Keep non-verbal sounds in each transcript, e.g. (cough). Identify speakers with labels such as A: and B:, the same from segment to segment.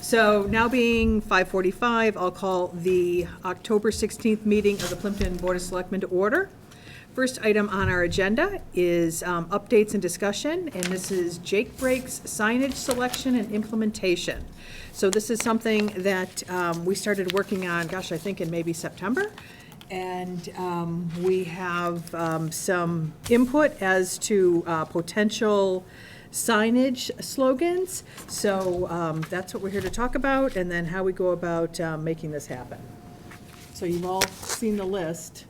A: So now being 5:45, I'll call the October 16th meeting of the Plimpton Board of Selectmen to order. First item on our agenda is um, updates and discussion, and this is Jake Breaks signage selection and implementation. So this is something that um, we started working on, gosh, I think in maybe September. And um, we have um, some input as to uh, potential signage slogans. So um, that's what we're here to talk about, and then how we go about um, making this happen. So you've all seen the list.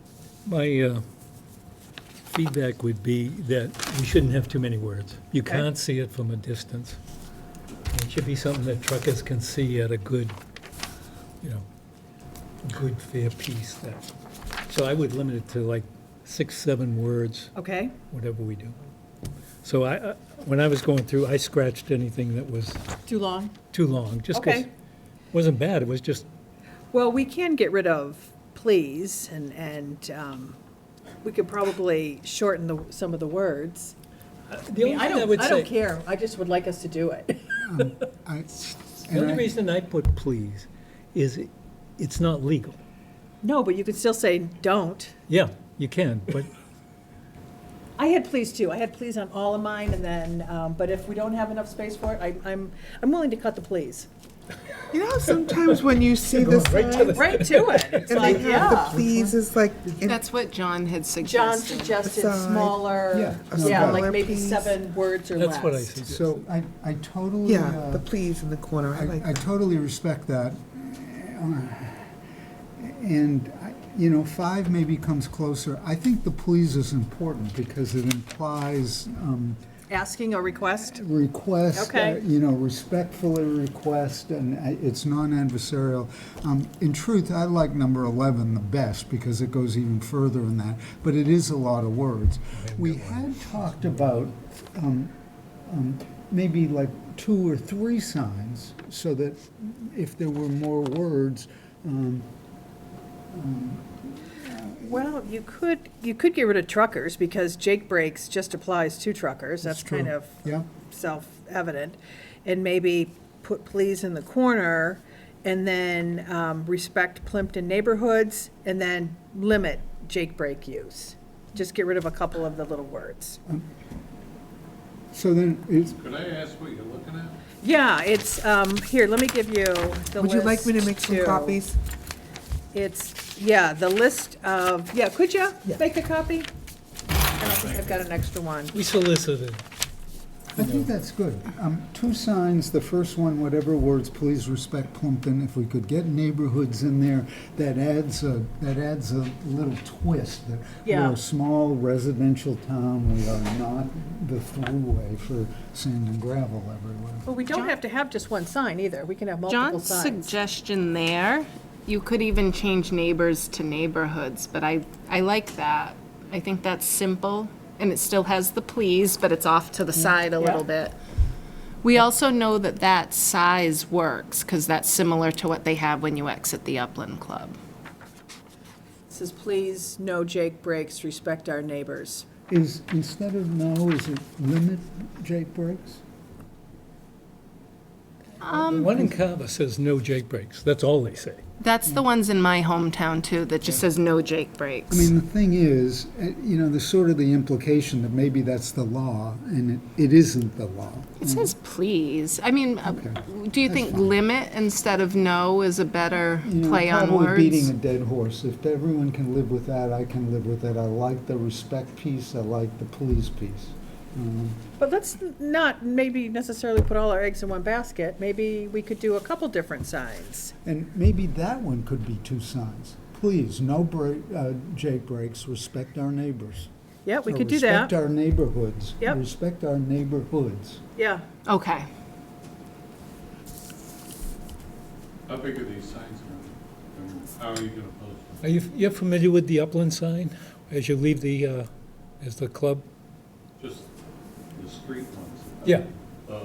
B: My uh, feedback would be that we shouldn't have too many words. You
A: Okay.
B: can't see it from a distance. It should be something that truckers can see at a good, you know, good fair piece. that- So I would limit it to like six, seven words,
A: Okay,
B: whatever we do. So I, I- when I was going through, I scratched anything that was
A: too long?
B: too long, just 'cause
A: Okay.
B: it wasn't bad, it was just,
A: Well, we can get rid of please, and, and um, we could probably shorten the, some of the words. Uh, I
B: the only
A: mean,
B: thing
A: I
B: I
A: don't,
B: would
A: I don't
B: say,
A: care, I just would like us to do it.
C: I-
B: the
C: and
B: only
C: I-
B: reason I put please is it- it's not legal.
A: No, but you could still say don't.
B: Yeah, you can, but
A: I had please too. I had please on all of mine and then, um, but if we don't have enough space for it, I, I'm, I'm willing to cut the please.
C: You know, sometimes when you see the signs
A: Right to
C: (laughs)
A: it. It's
C: and they
A: like,
C: have the
A: yeah.
C: please is like, uh, and-
D: That's what John
A: John
D: had suggested.
A: suggested
C: Aside.
A: smaller,
C: Yeah, a
A: yeah, like
C: smaller
A: maybe
C: piece.
A: seven words or less.
B: that's what I suggested.
E: So I, I totally,
C: yeah,
E: uh,
C: the please in the corner, I
E: I
C: like
E: I
C: that.
E: totally respect that. And, I- you know, five maybe comes closer. I think the please is important because it implies um,
A: Asking a request?
E: request, uh,
A: Okay.
E: you know, respectfully request, and I- it's non-adversarial. Um, In truth, I like number 11 the best because it goes even further than that, but it is a lot of words. We had talked about um, um, maybe like two or three signs so that if there were more words, um,
A: Well, you could, you could get rid of truckers because Jake breaks just applies to truckers. That's
E: That's true.
A: kind of
E: yeah,
A: self-evident. And maybe put please in the corner and then um, respect Plimpton neighborhoods and then limit Jake break use. Just get rid of a couple of the little words.
E: so then it's,
F: Could I ask what you're looking at?
A: Yeah, it's, um, here, let me give you the list.
C: Would you like me to make some
A: too.
C: copies?
A: It's, yeah, the list of, yeah, could you make a copy? I don't think I've got an extra one.
B: We solicited,
E: I think that's good. Um, Two signs, the first one, whatever words, please respect Plumpton. If we could get neighborhoods in there, that adds a, that adds a little twist. that
A: Yeah.
E: We're a small residential town, we are not the throughway for sand and gravel everywhere.
A: Well, we don't have to have just one sign either. We can have multiple
D: John's
A: signs.
D: suggestion there, you could even change neighbors to neighborhoods, but I, I like that. I think that's simple, and it still has the please, but it's off to the
E: Mm,
D: side a little bit. We also know that that size works, because that's similar to what they have when you exit the Upland Club.
A: Says, please, no Jake breaks, respect our neighbors.
E: Is, instead of no, is it limit Jake breaks?
A: Um,
B: one in Carver says no Jake breaks, that's all they say.
D: That's the ones in my hometown, too, that just says no Jake breaks.
E: Mm. I mean, the thing is, eh, you know, there's sort of the implication that maybe that's the law, and it it isn't the law.
D: It says please. I mean, uh,
E: mm. Okay.
D: do you think limit instead of no is a better
E: You know,
D: play on
E: Probably beating a
D: words?
E: dead horse. If everyone can live with that, I can live with it. I like the respect piece, I like the please piece. Um,
A: But let's not maybe necessarily put all our eggs in one basket. Maybe we could do a couple different signs.
E: And maybe that one could be two signs. Please, no break, uh, Jake breaks, respect our neighbors.
A: Yeah, we
E: Or
A: could do that.
E: Respect our neighborhoods.
A: Yep.
E: Respect our neighborhoods.
A: Yeah.
D: Okay.
F: How big are these signs are? And How are you gonna post them?
B: Are you, you're familiar with the upland sign as you leave the, uh, as the club?
F: Just the street ones?
B: Yeah.
F: Uh,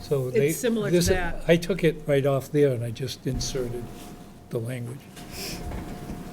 B: So
A: It's
B: they.
A: similar to
B: this-
A: that.
B: I took it right off there and I just inserted the language.